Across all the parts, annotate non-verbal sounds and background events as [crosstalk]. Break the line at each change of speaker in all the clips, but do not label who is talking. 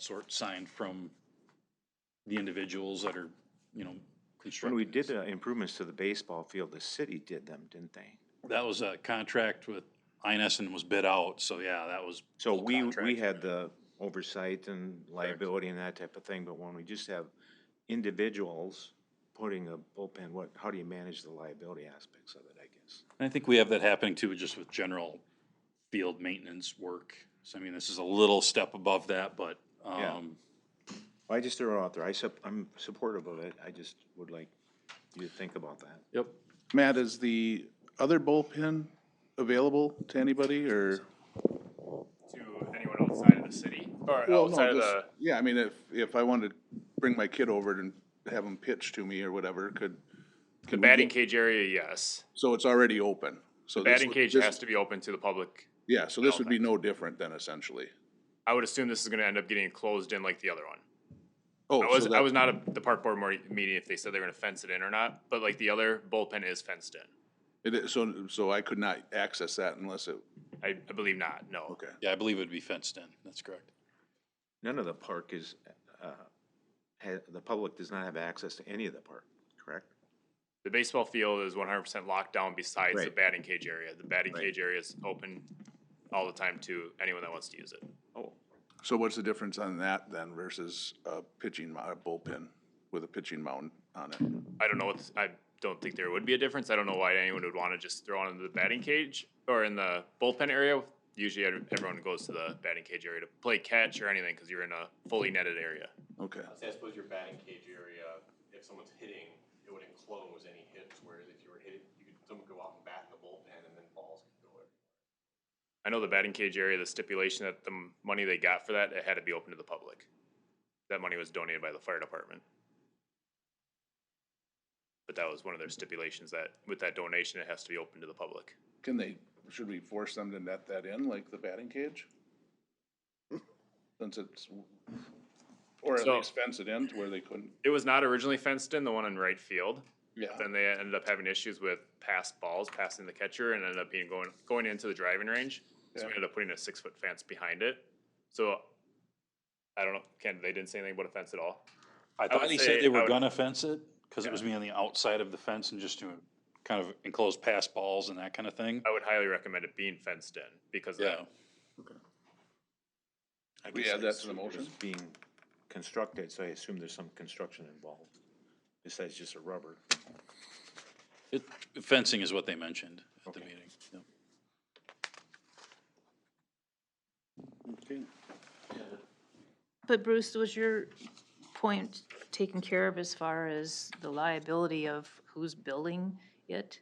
sort signed from the individuals that are, you know,
When we
constructing.
did the improvements to the baseball field, the city did them, didn't they?
That was a contract with INS and was bid out, so yeah, that was.
So
full
we, we
contract.
had the oversight and liability and that type of thing, but when we just have individuals putting a bullpen, what, how do you manage the liability aspects of it, I guess?
And I think we have that happening too, just with general field maintenance work. So I mean, this is a little step above that, but,
Yeah.
um,
Well, I just threw it out there. I sup, I'm supportive of it. I just would like you to think about that.
yep.
Matt, is the other bullpen available to anybody or?
to anyone outside of the city or
Well, no,
outside of
just-
the.
Yeah, I mean, if, if I wanted to bring my kid over and have him pitch to me or whatever, could,
The batting cage area, yes.
so it's already open. So
The
this
batting
would-
cage
this-
has to be open to the public.
Yeah, so this would be no different then essentially.
I would assume this is gonna end up getting closed in like the other one.
Oh,
I
so
was, I
that-
was not at the park board mor- meeting if they said they were gonna fence it in or not, but like the other bullpen is fenced in.
It is, so, so I could not access that unless it,
I, I believe not, no.
okay.
Yeah, I believe it'd be fenced in. That's correct.
None of the park is, uh, ha, the public does not have access to any of the park, correct?
The baseball field is one hundred percent locked down besides the
Right.
batting cage area. The batting
Right.
cage area is open all the time to anyone that wants to use it.
Oh,
So what's the difference on that then versus a pitching, mo- a bullpen with a pitching mound on it?
I don't know what, I don't think there would be a difference. I don't know why anyone would want to just throw it in the batting cage or in the bullpen area. Usually ev- everyone goes to the batting cage area to play catch or anything because you're in a fully netted area.
Okay,
I'd say I suppose your batting cage area, if someone's hitting, it would enclose any hits, whereas if you were hitting, you could, someone could go out and bat in the bullpen and then balls could go in.
I know the batting cage area, the stipulation that the m- money they got for that, it had to be open to the public. That money was donated by the fire department. But that was one of their stipulations that with that donation, it has to be open to the public.
can they, should we force them to net that in like the batting cage? Since it's, or at
So-
least fence it in to where they couldn't,
It was not originally fenced in, the one in right field.
yeah,
Then they ended up having issues with pass balls, passing the catcher, and ended up being going going into the driving range. So we
Yeah.
ended up putting a six foot fence behind it. So I don't know. Ken, they didn't say anything about a fence at all.
I thought
would
they
say
said they
I
were
would-
gonna fence it, cause it was me on the outside of the fence and just doing kind of enclosed pass balls and that kind of thing.
I would highly recommend it being fenced in because of
Yeah,
that.
I
We
guess I
add that to the
assume it was
motion?
Being constructed, so I assume there's some construction involved, besides just a rubber.
it, fencing is what they mentioned at the
Okay.
meeting. Yep.
But Bruce, was your point taken care of as far as the liability of who's building it?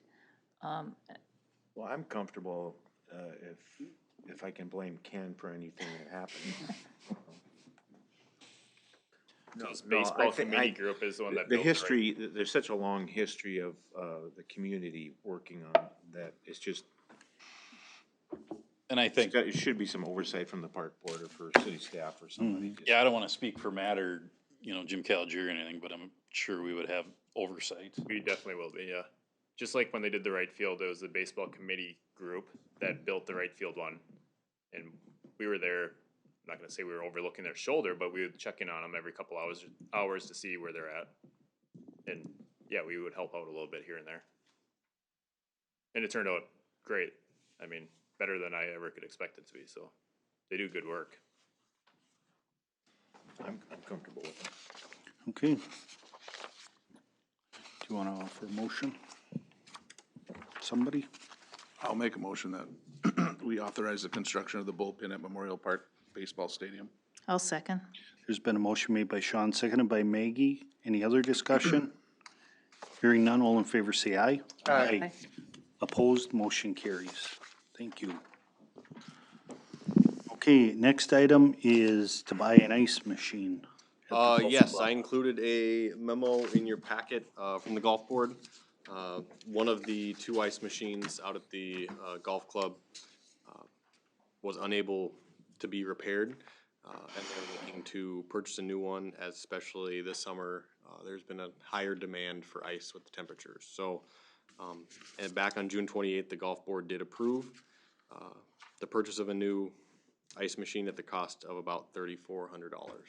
Well, I'm comfortable, uh, if, if I can blame Ken for anything that [laughs] happened.
So this
no, I
baseball
think
committee
I-
group is the one that
The
built it, right?
history, th- there's such a long history of, uh, the community working on that, it's just,
And I
it's
think
got- it should be some oversight from the park board or for city staff or somebody. just-
Yeah, I don't want to speak for Matt or, you know, Jim Caligiuri or anything, but I'm sure we would have oversight.
We definitely will be, yeah. Just like when they did the right field, it was the baseball committee group that built the right field one. And we were there, I'm not gonna say we were overlooking their shoulder, but we would check in on them every couple hours, hours to see where they're at. And yeah, we would help out a little bit here and there. And it turned out great. I mean, better than I ever could expect it to be, so they do good work.
I'm, I'm comfortable with it.
Okay. Do you want to offer a motion? Somebody?
I'll make a motion that [clears throat] we authorize the construction of the bullpen at Memorial Park Baseball Stadium.
I'll second.
There's been a motion made by Sean, seconded by Maggie. Any other discussion? [clears throat] Hearing none, all in favor say aye. Aye. Opposed, motion carries. Thank you. Okay, next item is to buy an ice machine. at the
Uh,
golf
yes,
club.
I included a memo in your packet, uh, from the golf board. Uh, one of the two ice machines out at the, uh, golf club, uh, was unable to be repaired. Uh, and they're looking to purchase a new one, as especially this summer, uh, there's been a higher demand for ice with the temperatures, so. Um, and back on June twenty-eighth, the golf board did approve, uh, the purchase of a new ice machine at the cost of about thirty-four hundred dollars.